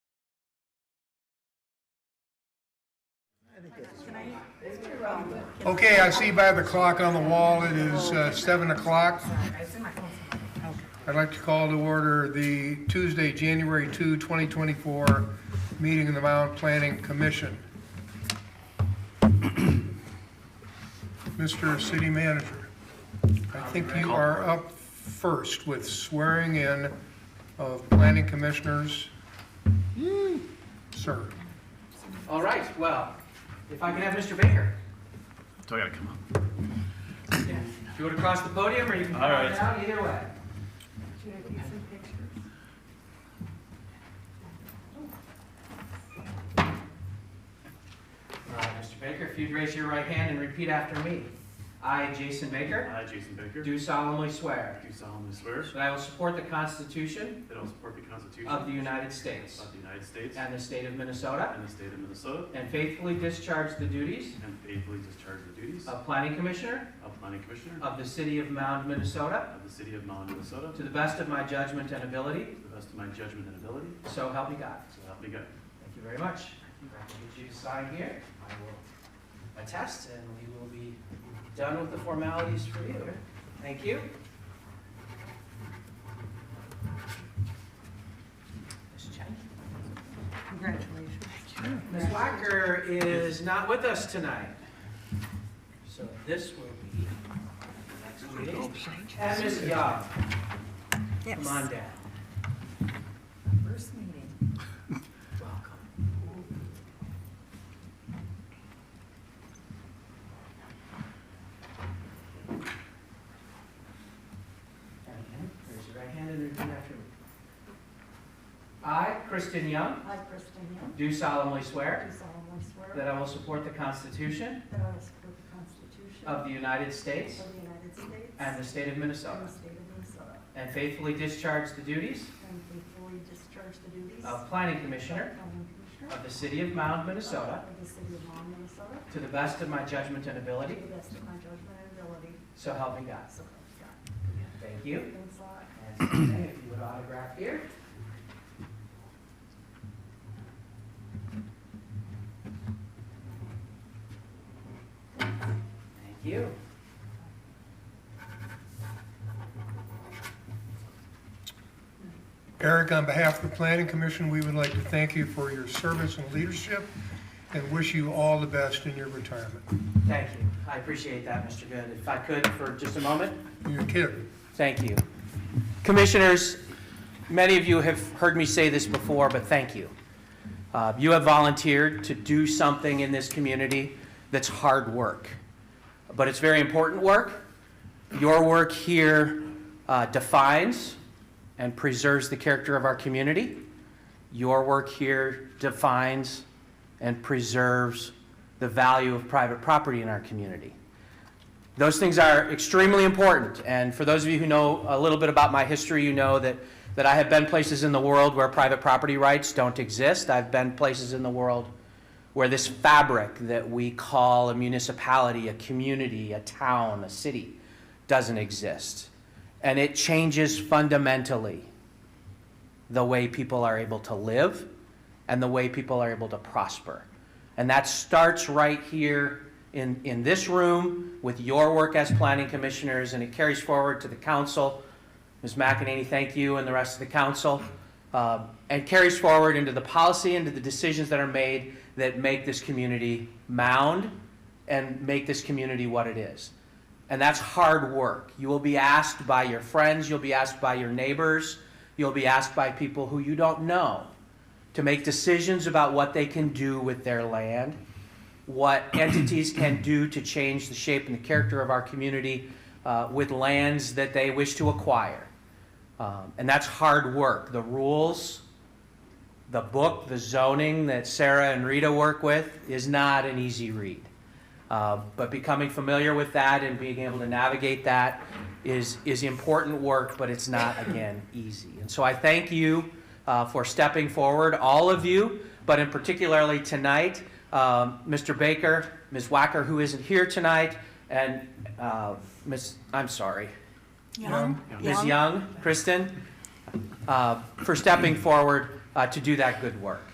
Okay, I see by the clock on the wall, it is uh, seven o'clock. I'd like to call to order the Tuesday, January 2, 2024, meeting of the Mound Planning Commission. Mr. City Manager, I think you are up first with swearing in of planning commissioners. Sir. All right, well, if I can have Mr. Baker. Do I gotta come up? If you would across the podium, or you can come All on right. down, either way. All right, Mr. Baker, if you'd raise your right hand and repeat after me. I, Jason Baker, I, Jason Baker, do do solemnly swear solemnly swear that I will support the Constitution that I will support the Constitution of the United States of the United States and the state of Minnesota, and the state of Minnesota, and faithfully discharge the duties and faithfully discharge the duties of Planning Commissioner of Planning Commissioner of the city of Mound, Minnesota, of the city of Mound, Minnesota, To the best of my judgment and ability, to the best of my judgment and ability, so help me God. so help me God. Thank you very much. If I can get you to sign here, I will attest, and we will be done with the formalities for you. Thank you. Ms. Chang? Congratulations. Ms. Wacker is not with us tonight. So this will be next meeting. And Ms. Young, come on Yes, down. first meeting. Welcome. Raise your right hand and repeat after me. I, Kristen Young, I, Kristen Young, do solemnly swear do solemnly swear that I will support the Constitution that I will support the Constitution of of the United States the United States and the state of and Minnesota, the state of Minnesota, and faithfully discharge the duties and faithfully discharge the duties of of Planning Commissioner Planning Commissioner of the city of Mound, Minnesota, of the city of Long, Minnesota, to the best of my judgment and to ability, the best of my judgment and ability, so help me God. so help me God. Thank you. Thanks a lot. And if you would autograph here. Thank you. Eric, on behalf of the Planning Commission, we would like to thank you for your service and leadership and wish you all the best in your retirement. Thank you. I appreciate that, Mr. Good. If I could, for just a moment. You're kidding. Thank you. Commissioners, many of you have heard me say this before, but thank you. Uh, You have volunteered to do something in this community that's hard work, but it's very important work. Your work here uh, defines and preserves the character of our community. Your work here defines and preserves the value of private property in our community. Those things are extremely important, and for those of you who know a little bit about my history, you know that, that I have been places in the world where private property rights don't exist. I've been places in the world where this fabric that we call a municipality, a community, a town, a city, doesn't exist. And it changes fundamentally the way people are able to live and the way people are able to prosper. And that starts right here in, in this room with your work as planning commissioners, and it carries forward to the council. Ms. McEnany, thank you, and the rest of the council, um, and carries forward into the policy, into the decisions that are made that make this community mound and make this community what it is. And that's hard work. You will be asked by your friends, you'll be asked by your neighbors, you'll be asked by people who you don't know to make decisions about what they can do with their land, what entities can do to change the shape and the character of our community uh, with lands that they wish to acquire. Um, and that's hard work. The rules, the book, the zoning that Sarah and Rita work with is not an easy read. Uh, but becoming familiar with that and being able to navigate that is, is important work, but it's not, again, easy. And so I thank you uh, for stepping forward, all of you, but in particularly tonight, um, Mr. Baker, Ms. Wacker, who isn't here tonight, and uh, Ms., I'm sorry, Young. Ms. Young, Kristen, uh, for stepping forward uh, to do that good work.